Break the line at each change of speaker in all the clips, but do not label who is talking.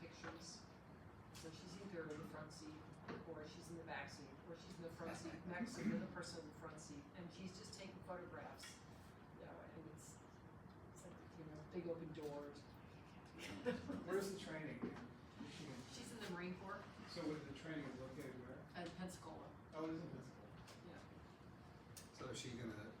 pictures. So she's either in the front seat or she's in the back seat, or she's in the front seat next to the other person in the front seat, and she's just taking photographs. You know, and it's, it's like, you know, big open doors.
Where's the training?
She's in the Marine Corps
So with the training is located where?
at Pensacola.
Oh, it is in Pensacola.
So is she gonna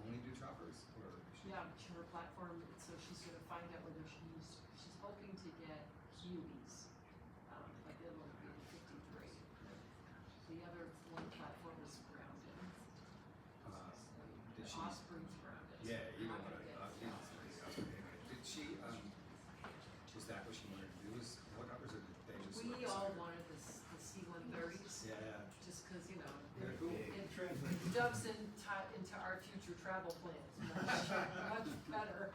only do choppers or is she?
Yeah, to her platform, and so she's gonna find out whether she's, she's hoping to get Hueys, um, but it'll be fifty-three. The other one platform is grounded,
Uh,
the
did she?
Osprey's grounded.
Yeah, you know
I'm
what I
gonna
thought.
get-
Yeah, it's crazy. I was like, anyway, Did she, um, was that what she wanted to do? Was helicopters or did they just?
We
represent
all
her?
wanted the, s- the C one thirties,
Yeah,
just cause, you know,
they're cool.
it
Translate.
dubs in ti- into our future travel plans much, much better.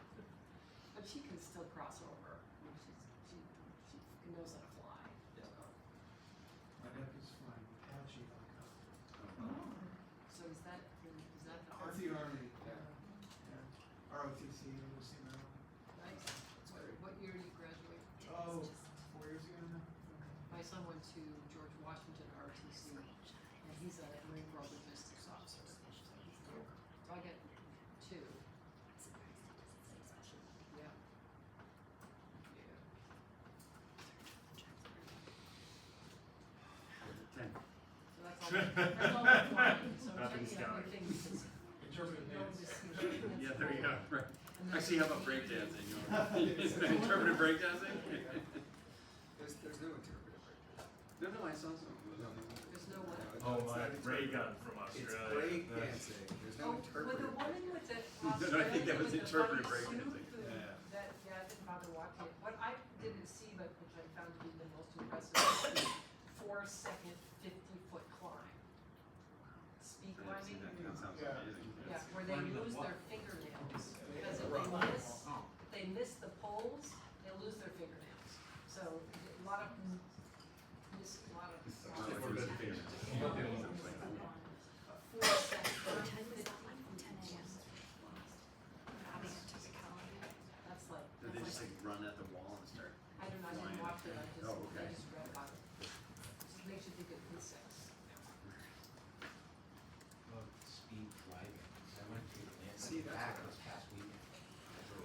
But she can still cross over, I mean, she's, she, she fucking knows how to fly.
Yeah.
so.
My nephew's flying Apache helicopter.
Um,
So is that, is that the
Oh,
art?
That's the Army,
Yeah.
yeah, yeah. ROTC, University of Maryland.
Nice. What, what year did you graduate?
Oh, four years ago now?
My son went to George Washington ROTC, and he's a Marine Corps logistics officer. So I get two, yeah. Yeah. So that's all, that's all I'm flying, so I'm
Nothing's
checking out
going.
new things.
Interpretive
Don't
dance.
just, you know,
Yeah,
that's
there you
cool.
go, right.
And then
Actually, how about
there's-
breakdancing? You want- Interpretive breakdancing?
There's, there's no interpretive right there.
No, no, I saw some.
No, no, no.
There's no what?
No, it's
Oh,
not
my
interpretive.
Ray gun from
It's
Australia.
break
That's-
dancing. There's
Oh,
no
with the
interpretive.
woman with the
No, I think that
Australian
was
with the
interpretive
funny
breakdancing.
suit who-
Yeah.
That, yeah, I didn't bother watching it. What I didn't see, but which I found to be the most impressive, was the four second fifty foot climb. Speed
I didn't see
climbing,
that. That sounds
Yeah.
amazing.
yeah, where they lose their fingernails, because if they
Right.
miss,
Oh.
if they miss the poles, they lose their fingernails. So, a lot of, miss, a lot of.
It's not like there's a favorite.
Four second, that's like,
Did they
that's
just
like
like run at the wall and start?
I don't know, I didn't
Lion.
watch it, I just,
Oh,
I
okay.
just read about it. Just makes you think of insects.
About speed driving, 'cause I went to
See,
Atlanta
that's
back
what I-
this past weekend.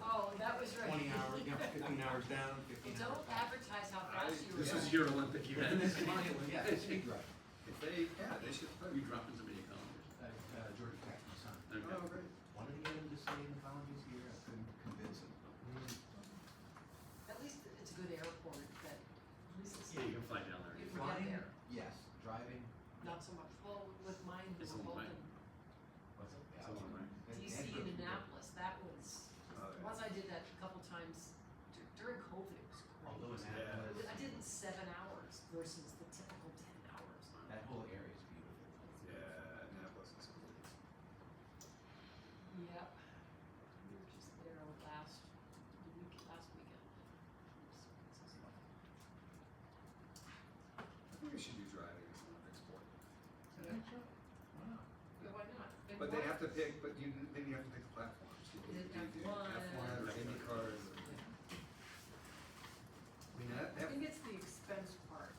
Oh, that was right.
Twenty hours, you know, fifteen hours down,
You
fifteen hours
don't
back.
advertise how fast you were.
This is
going.
your Olympic
And
event.
this is my, yeah, speed drive,
If they, yeah, they should. put-
You dropping somebody a column?
uh, uh, George Peck, my son.
Oh, great.
Wanted to get him to stay in college this year, I couldn't convince him.
At least it's a good airport, but at least Oh. it's
Yeah, you can fly down
You
there.
forget
Flying,
there.
yes, driving,
not so much, well, with mine, who
It's
were
a
both
line.
in
what's it?
It's a long way.
DC and Annapolis, that was,
Oh, yeah.
once I did that a couple times dur- during COVID, it was
Although
great.
Annapolis,
I did it in seven hours versus the typical ten hours.
that whole area is beautiful.
Yeah, Annapolis is cool.
Yep. We were just there last, the week, last weekend. It's- it's fun.
I think we should do driving as an Olympic sport.
Wow.
Yeah, why not? And
But they
what-
have to pick, but you, then you have to pick the platforms. You
Is
can
it
do the
F1?
F1 or any cars. or- I mean, that,
I
that,
think it's the expense part.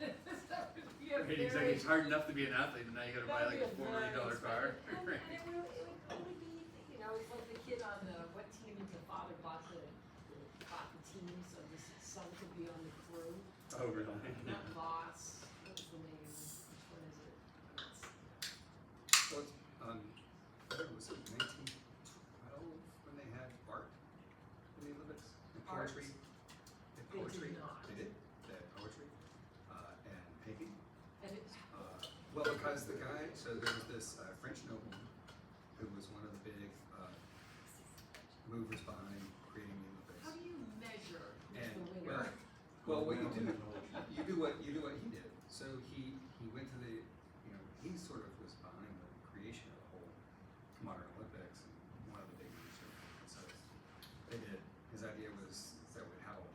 That would be a
Right,
very-
exactly. It's hard enough to be an athlete, but now you gotta buy
that'd
like
be
a four million dollar
very
car.
expensive- And and it would, it would only be, you know, it's like the kid on the, what team is the father bought the, the- bought the team, so his son could be on the crew.
Oh, really?
Not Voss, what's the name, which one is it? It's-
well, it's, um, what was it nineteen twelve when they had art in the Olympics? And
Art.
poetry?
They
And
did
poetry?
not.
They did, they had poetry, uh, and painting.
And it's,
Uh, well, because the guy, so there was this uh, French nobleman who was one of the big uh, movers behind creating the Olympics.
How do you measure who's the
And well,
winner?
well, what you do, you do what you do what he did. So he he went to the, you know, he sort of was behind the creation of